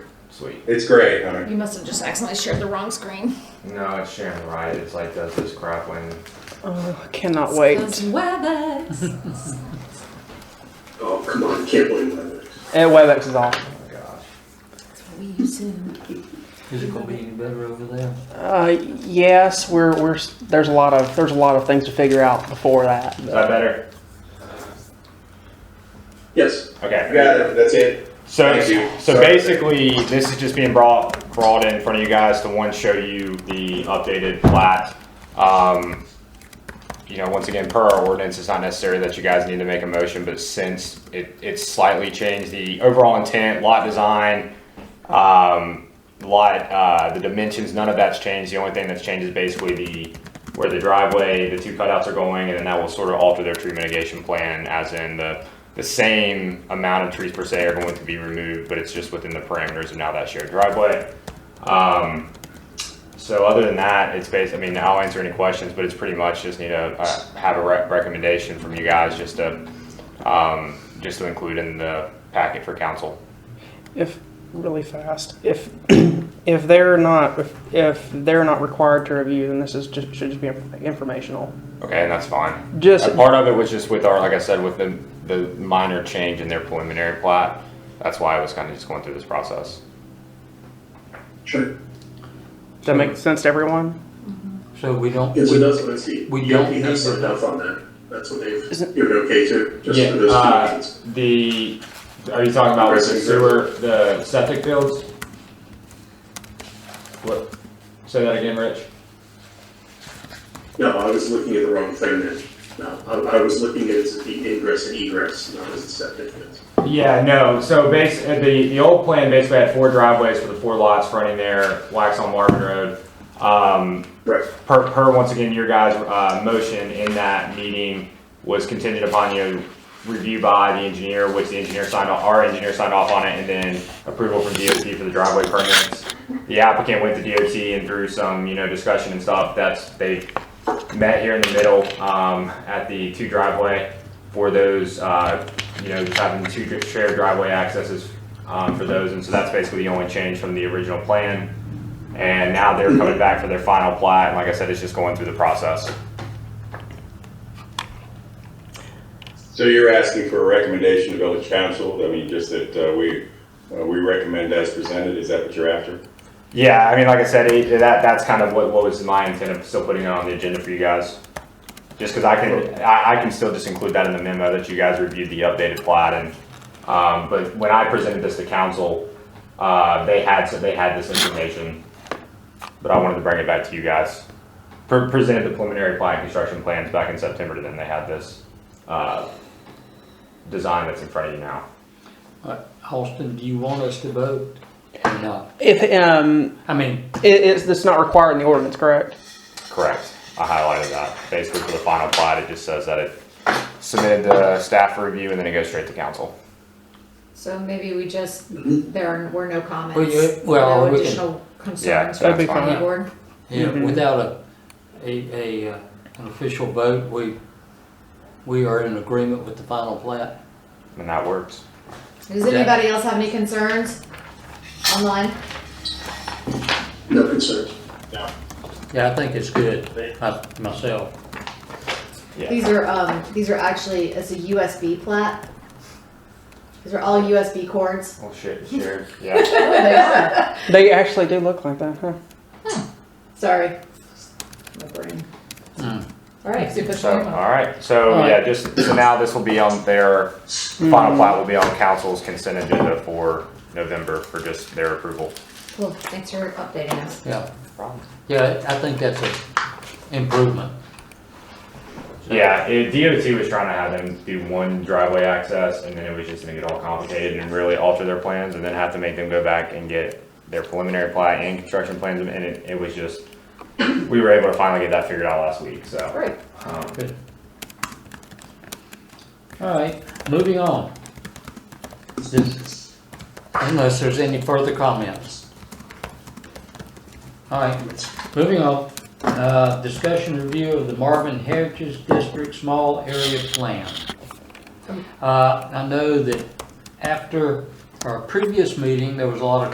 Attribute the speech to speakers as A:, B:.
A: Sweet.
B: It's great, huh?
C: You must have just accidentally shared the wrong screen.
A: No, it's Sharon Wright. It's like does this crap when
D: Oh, I cannot wait.
C: Those WebEx.
B: Oh, come on, can't believe that.
D: Yeah, WebEx is awesome.
A: oh my gosh.
C: That's what we use to.
E: Is it gonna be any better over there?
D: Uh, yes, we're we're there's a lot of there's a lot of things to figure out before that.
A: Is that better?
B: Yes.
A: Okay.
B: Got it, that's it.
A: So,
B: Thank you.
A: so
B: Sorry.
A: basically, this is just being brought, brought in front of you guys to one, show you the updated plat. Um, you know, once again, per our ordinance, it's not necessary that you guys need to make a motion, but since it, it's slightly changed the overall intent, lot design, um, lot, uh, the dimensions, none of that's changed. The only thing that's changed is basically the, where the driveway, the two cutouts are going, and then that will sort of alter their tree mitigation plan, as in the, the same amount of trees per se are going to be removed, but it's just within the parameters of now that shared driveway. Um, so other than that, it's based, I mean, I'll answer any questions, but it's pretty much just need to, uh, have a rec- recommendation from you guys, just to, um, just to include in the packet for council.
D: If really fast, if if they're not if, if they're not required to review, then this is just should just be informational.
A: Okay, and that's fine.
D: Just-
A: And part of it was just with our, like I said, with the the minor change in their preliminary plat. That's why I was kind of just going through this process.
B: Sure.
D: Does that make sense to everyone?
E: So we don't.
B: Yes, it does, I see.
E: We don't
B: We
E: need
B: have some
E: to-
B: enough on that. That's what they've
D: Isn't-
B: given okay to, just for those two
A: Uh,
B: reasons.
A: the are you talking about with the sewer, the septic fields? What? Say that again, Rich.
B: No, I was looking at the wrong thing then. No, I, I was looking at it as the ingress and egress, not as the septic.
A: Yeah, no, so base, uh, the, the old plan basically had four driveways for the four lots running there, Wax on Marvin Road. Um,
B: Right.
A: per, per once again, your guys' uh, motion in that meeting was contingent upon you review by the engineer, which the engineer signed off, our engineer signed off on it, and then approval from DOT for the driveway permits. The applicant went to DOT and through some, you know, discussion and stuff, that's, they met here in the middle, um, at the two driveway for those, uh, you know, having two dri- shared driveway accesses, um, for those, and so that's basically the only change from the original plan. And now they're coming back for their final plat, and like I said, it's just going through the process.
F: So you're asking for a recommendation to village council, I mean, just that uh, we, uh, we recommend as presented, is that what you're after?
A: Yeah, I mean, like I said, it, that that's kind of what, what was my intent of still putting it on the agenda for you guys. Just because I can, I, I can still just include that in the memo that you guys reviewed the updated plat and, um, but when I presented this to council, uh, they had, so they had this information. But I wanted to bring it back to you guys. Pre- Presented the preliminary plat and construction plans back in September, and then they had this, uh, design that's in front of you now.
E: Uh, Austin, do you want us to vote or not?
D: If um,
E: I mean,
D: it, it's that's not required in the ordinance, correct?
A: Correct. I highlighted that. Basically, for the final plat, it just says that it submitted to staff for review and then it goes straight to council.
G: So maybe we just, there are- were no comments,
E: yeah, well,
G: no
E: we can-
G: additional
A: Yeah,
G: concerns from
D: that'd
G: the
D: be
G: planning
E: fine.
G: board?
E: yeah,
D: Mhm.
E: without a, a, a, uh, an official vote, we, we are in agreement with the final plat.
A: And that works.
G: Does
E: Yeah.
G: anybody else have any concerns online?
B: No concerns.
E: Yeah, I think it's good, I- myself.
G: These are, um, these are actually, it's a USB plat. These are all USB cords. Oh,
A: Oh shit, shared. Yeah.
G: They are.
D: They actually do look like that, huh?
G: Sorry. My brain.
E: Mm.
G: All right, so push
A: So,
G: one.
E: uh,
A: all right. So,
E: All
A: yeah, just, so now this will be on their, final plat will be on council's consent agenda for November for just their approval.
G: Cool, thanks for updating us.
E: Yeah, yeah, I think that's an improvement.
A: Yeah, it, DOT was trying to have them do one driveway access and then it was just gonna get all complicated and really alter their plans and then have to make them go back and get their preliminary plat and construction plans and it, it was just, we were able to finally get that figured out last week, so.
G: Great.
A: um,
E: Good. All right, moving on. Unless there's any further comments. All right, moving on. Uh, Discussion review of the Marvin Heritage District Small Area Plan. Uh, I know that after our previous meeting, there was a lot of